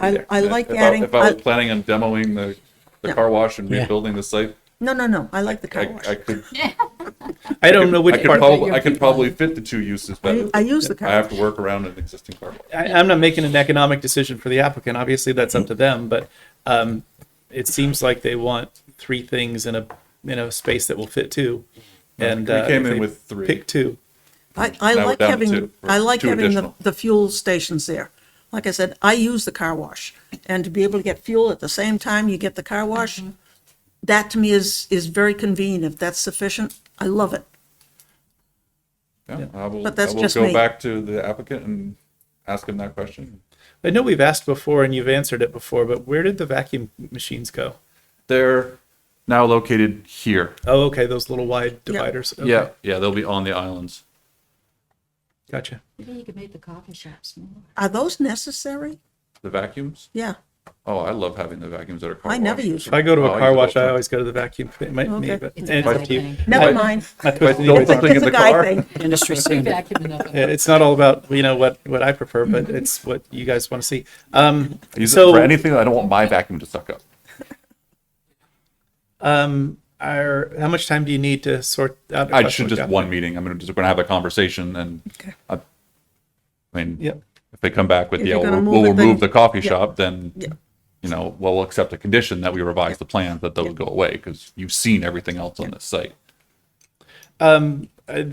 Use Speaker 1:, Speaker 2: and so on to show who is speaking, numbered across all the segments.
Speaker 1: I, I like
Speaker 2: If
Speaker 1: adding,
Speaker 2: If I was
Speaker 1: I-
Speaker 2: planning on demoing the, the
Speaker 1: No.
Speaker 2: car wash and
Speaker 3: Yeah.
Speaker 2: rebuilding the site,
Speaker 1: no, no, no, I like the car
Speaker 2: I,
Speaker 1: wash.
Speaker 2: I could.
Speaker 3: I don't know
Speaker 2: I
Speaker 3: which
Speaker 2: could
Speaker 3: part,
Speaker 2: probably,
Speaker 3: I,
Speaker 2: I could probably fit the two uses better.
Speaker 1: I use the car
Speaker 2: I have to
Speaker 1: wash.
Speaker 2: work around an existing car wash.
Speaker 3: I'm not making an economic decision for the applicant, obviously that's up to them, but, um, it seems like they want three things in a, in a space that will fit two. And,
Speaker 2: We
Speaker 3: uh,
Speaker 2: came
Speaker 3: if
Speaker 2: in
Speaker 3: they
Speaker 2: with three.
Speaker 3: Pick two.
Speaker 1: I, I
Speaker 2: Now we're
Speaker 1: like
Speaker 2: down to
Speaker 1: having,
Speaker 2: two.
Speaker 1: I like
Speaker 2: Two
Speaker 1: having the,
Speaker 2: additional.
Speaker 1: the fuel stations there. Like I said, I use the car wash and to be able to get fuel at the same time you get the car wash, that to me is, is very convenient. If that's sufficient, I love it.
Speaker 2: Yeah, I will,
Speaker 1: But
Speaker 2: I
Speaker 1: that's
Speaker 2: will
Speaker 1: just me.
Speaker 2: go back to the applicant and ask him that question.
Speaker 3: I know we've asked before and you've answered it before, but where did the vacuum machines go?
Speaker 2: They're now located here.
Speaker 3: Oh, okay, those little wide dividers. Okay,
Speaker 2: Yeah, yeah, they'll be on the islands.
Speaker 3: Gotcha.
Speaker 4: Maybe you could make the coffee shop smaller.
Speaker 1: Are those necessary?
Speaker 2: The vacuums?
Speaker 1: Yeah,
Speaker 2: Oh, I love having the vacuums that are car
Speaker 1: I never
Speaker 2: washed.
Speaker 1: use
Speaker 3: If I
Speaker 1: them.
Speaker 3: go to
Speaker 2: Oh,
Speaker 3: a
Speaker 2: I
Speaker 3: car
Speaker 2: use
Speaker 3: wash,
Speaker 2: the-
Speaker 3: I always go to the vacuum. It might
Speaker 1: Okay.
Speaker 3: me, but and
Speaker 4: It's a
Speaker 3: it's
Speaker 4: guy
Speaker 3: up to you.
Speaker 4: thing.
Speaker 1: Never
Speaker 3: I-
Speaker 1: mind.
Speaker 3: I put it in
Speaker 2: Don't
Speaker 3: the
Speaker 2: think
Speaker 3: car.
Speaker 2: in
Speaker 1: It's
Speaker 2: the
Speaker 1: a guy
Speaker 2: car.
Speaker 1: thing.
Speaker 5: industry standard.
Speaker 4: Vacuum it up.
Speaker 3: Yeah, eh, It's not all about you know what what I prefer, but it's what you guys want to see. Um,
Speaker 2: I Use it
Speaker 3: So-
Speaker 2: for anything. I don't want my vacuum to suck up.
Speaker 3: um, are, how much time do you need to sort out? a
Speaker 2: I
Speaker 3: question
Speaker 2: should
Speaker 3: with
Speaker 2: just
Speaker 3: Jeff?
Speaker 2: one meeting. I'm gonna just gonna have a conversation and I, I mean,
Speaker 3: Yeah.
Speaker 2: if they come back with,
Speaker 1: If
Speaker 2: yeah,
Speaker 1: you're
Speaker 2: we'll,
Speaker 1: gonna
Speaker 2: we'll
Speaker 1: move it, then-
Speaker 2: remove the coffee
Speaker 1: yeah.
Speaker 2: shop, then,
Speaker 1: Yeah.
Speaker 2: you know, well, we'll accept a condition that we revise the plan that those go away because you've seen everything else on this site.
Speaker 3: Uh,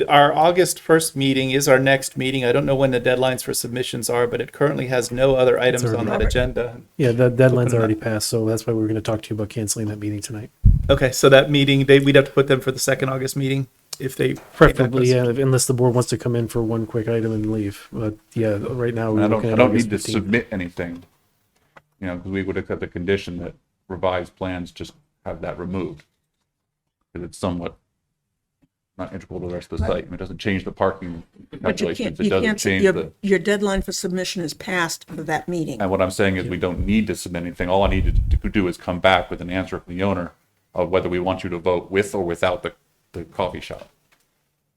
Speaker 3: our August first meeting is our next meeting. I don't know when the deadlines for submissions are, but it currently has no other items on that agenda.
Speaker 6: Yeah, the deadline's already passed, so that's why we were going to talk to you about canceling that meeting tonight.
Speaker 3: Okay, so that meeting they we'd have to put them for the second August meeting if they came back with-
Speaker 6: Preferably, yeah, unless the board wants to come in for one quick item and leave. But yeah, right now
Speaker 2: And
Speaker 6: we're
Speaker 2: I don't,
Speaker 6: looking
Speaker 2: I
Speaker 6: at
Speaker 2: don't
Speaker 6: August
Speaker 2: need to
Speaker 6: 15th.
Speaker 2: submit anything, you know, because we would accept the condition that revised plans just have that removed. Because it's somewhat not integral to the rest of the site. I mean, It doesn't change the parking
Speaker 1: But you can't,
Speaker 2: calculations. It
Speaker 1: you
Speaker 2: doesn't
Speaker 1: can't,
Speaker 2: change
Speaker 1: your,
Speaker 2: the,
Speaker 1: your deadline for submission is passed for that meeting.
Speaker 2: and what I'm saying is we don't need to submit anything. All I needed to do is come back with an answer from the owner of whether we want you to vote with or without the, the coffee shop.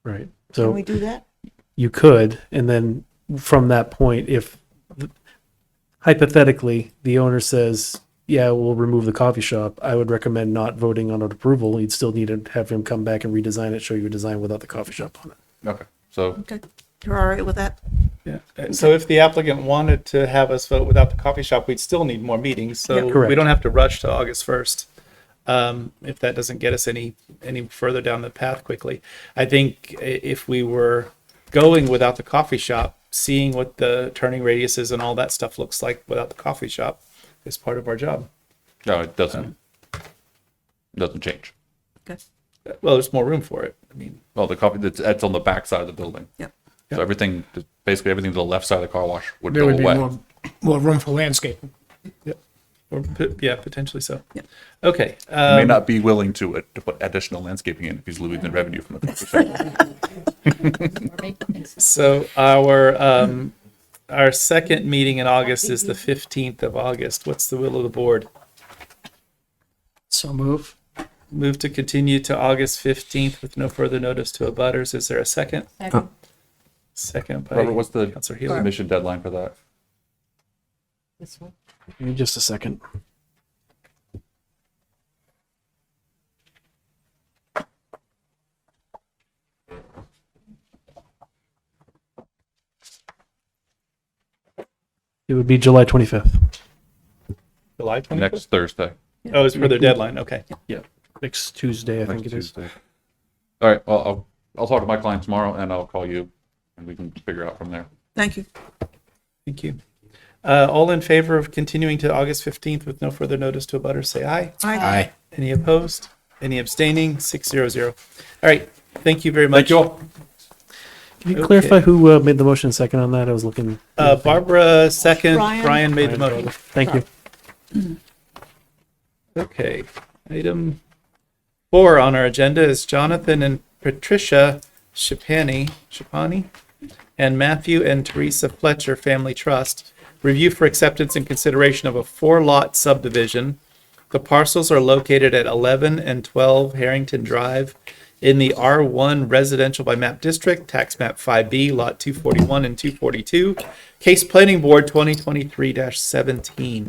Speaker 6: Right.
Speaker 1: Can we
Speaker 6: So
Speaker 1: do that?
Speaker 6: you could, and then from that point, if hypothetically the owner says, yeah, we'll remove the coffee shop, I would recommend not voting on an approval. You'd still need to have him come back and redesign it, show you a design without the coffee shop on it.
Speaker 2: Okay, so
Speaker 1: Okay, you're all right with that?
Speaker 3: Yeah. Uh, So if the applicant wanted to have us vote without the coffee shop, we'd still need more meetings. So
Speaker 6: Yeah. Correct.
Speaker 3: we don't have to rush to August 1st. Um, if that doesn't get us any any further down the path quickly, I think i- if we were going without the coffee shop, seeing what the turning radiuses and all that stuff looks like without the coffee shop is part of our job.
Speaker 2: no, it doesn't, it doesn't change.
Speaker 1: Okay,
Speaker 3: Uh, Well, there's more room for it. I mean,
Speaker 2: Well, the coffee that's, that's on the back side of the building.
Speaker 1: yep.
Speaker 2: So everything, basically everything to the left side of the car wash would
Speaker 5: There
Speaker 2: go
Speaker 5: would be
Speaker 2: away.
Speaker 5: more, more room for landscaping.
Speaker 3: or po- yeah, potentially so.
Speaker 1: Yeah.
Speaker 3: Okay.
Speaker 2: He may
Speaker 3: Um,
Speaker 2: not be willing to, uh, to put additional landscaping in if he's losing the revenue from the coffee shop.
Speaker 4: Or make it nice.
Speaker 3: So our um our second meeting in August is the fifteenth of August. What's the will of the board?
Speaker 5: So move.
Speaker 3: Move to continue to August fifteenth with no further notice to abutters. Is there a second?
Speaker 4: Second.
Speaker 3: Second by
Speaker 2: Robert, what's the
Speaker 3: Counselor Healy.
Speaker 2: submission deadline for that?
Speaker 4: This one.
Speaker 6: Give me Just a second. It would be July 25th.
Speaker 3: July twenty fifth.
Speaker 2: Next Thursday.
Speaker 3: Oh, it's for their deadline. Okay.
Speaker 6: Yeah. Next Tuesday, I think it is.
Speaker 2: All right, well, I'll, I'll talk to my client tomorrow and I'll call you and we can figure out from there.
Speaker 1: Thank you.
Speaker 3: Thank you. Uh, all in favor of continuing to August fifteenth with no further notice to abutters, say aye.
Speaker 1: Aye.
Speaker 3: Any opposed? Any abstaining? Six zero zero. All right. Thank you very much.
Speaker 2: Thank you all.
Speaker 6: Can you
Speaker 3: Okay.
Speaker 6: clarify who uh, made the motion second on that? I was looking.
Speaker 3: Uh, Barbara second.
Speaker 1: Brian.
Speaker 3: Brian made the motion.
Speaker 6: Thank you.
Speaker 3: Okay, item four on our agenda is Jonathan and Patricia Shapani, Shapani, and Matthew and Teresa Fletcher Family Trust. Review for acceptance and consideration of a four-lot subdivision. The parcels are located at 11 and 12 Harrington Drive in the R1 residential by map district, tax map 5B, lot 241 and 242, case planning board 2023 17.